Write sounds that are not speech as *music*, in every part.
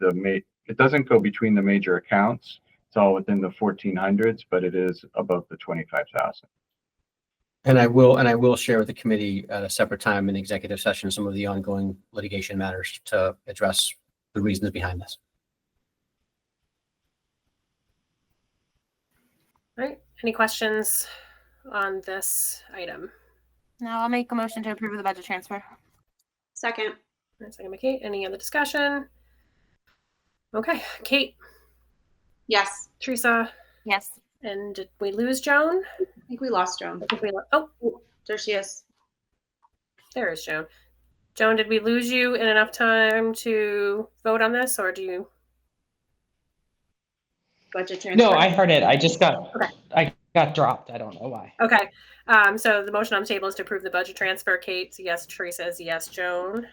the ma, it doesn't go between the major accounts. It's all within the fourteen hundreds, but it is above the twenty-five thousand. And I will, and I will share with the committee at a separate time in executive session, some of the ongoing litigation matters to address the reasons behind this. All right. Any questions on this item? Now I'll make a motion to approve of the budget transfer. Second. One second, by Kate. Any other discussion? Okay, Kate, Yes. Teresa, Yes. and did we lose Joan? I think we lost Joan. I think we. lo- Oh, There she is. there is Joan. Joan, did we lose you in enough time to vote on this, or do you? Budget transfer. No, I heard it. I just got, Okay. I got dropped. I don't know why. Okay. Um, so the motion on the table is to approve the budget transfer. Kate's a yes. Teresa is a yes. Joan.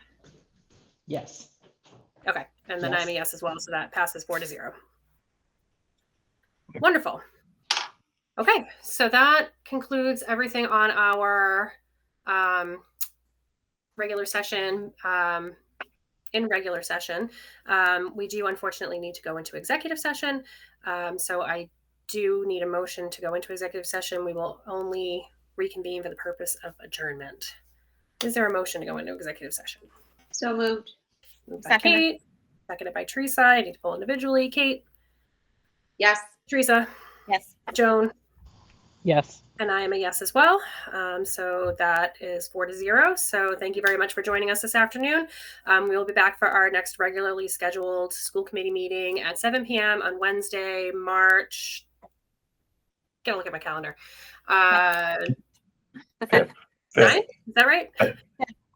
Yes. Okay, and then Yes. I'm a yes as well, so that passes four to zero. Wonderful. Okay, so that concludes everything on our um, regular session. Um, in regular session, um, we do unfortunately need to go into executive session. Um, so I do need a motion to go into executive session. We will only reconvene for the purpose of adjournment. Is there a motion to go into executive session? So moved. Moved by Seconded. Kate, seconded by Teresa. I need to pull individually. Kate, Yes. Teresa, Yes. Joan, Yes. and I am a yes as well. Um, so that is four to zero. So thank you very much for joining us this afternoon. Um, we will be back for our next regularly scheduled school committee meeting at 7 p.m. on Wednesday, March. Get a look at my calendar. Uh, The Okay. fifth, Fifth. ninth? Is that right?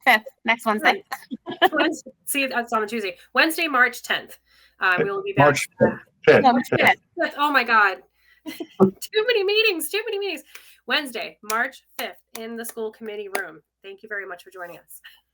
fifth, next Wednesday. *laughs* Wednesday- See, that's on Tuesday. Wednesday, March 10th. Uh, we will be back. March fifth. No, fifth. That's- oh my God. *laughs* too many meetings, too many meetings. Wednesday, March 5th in the school committee room. Thank you very much for joining us.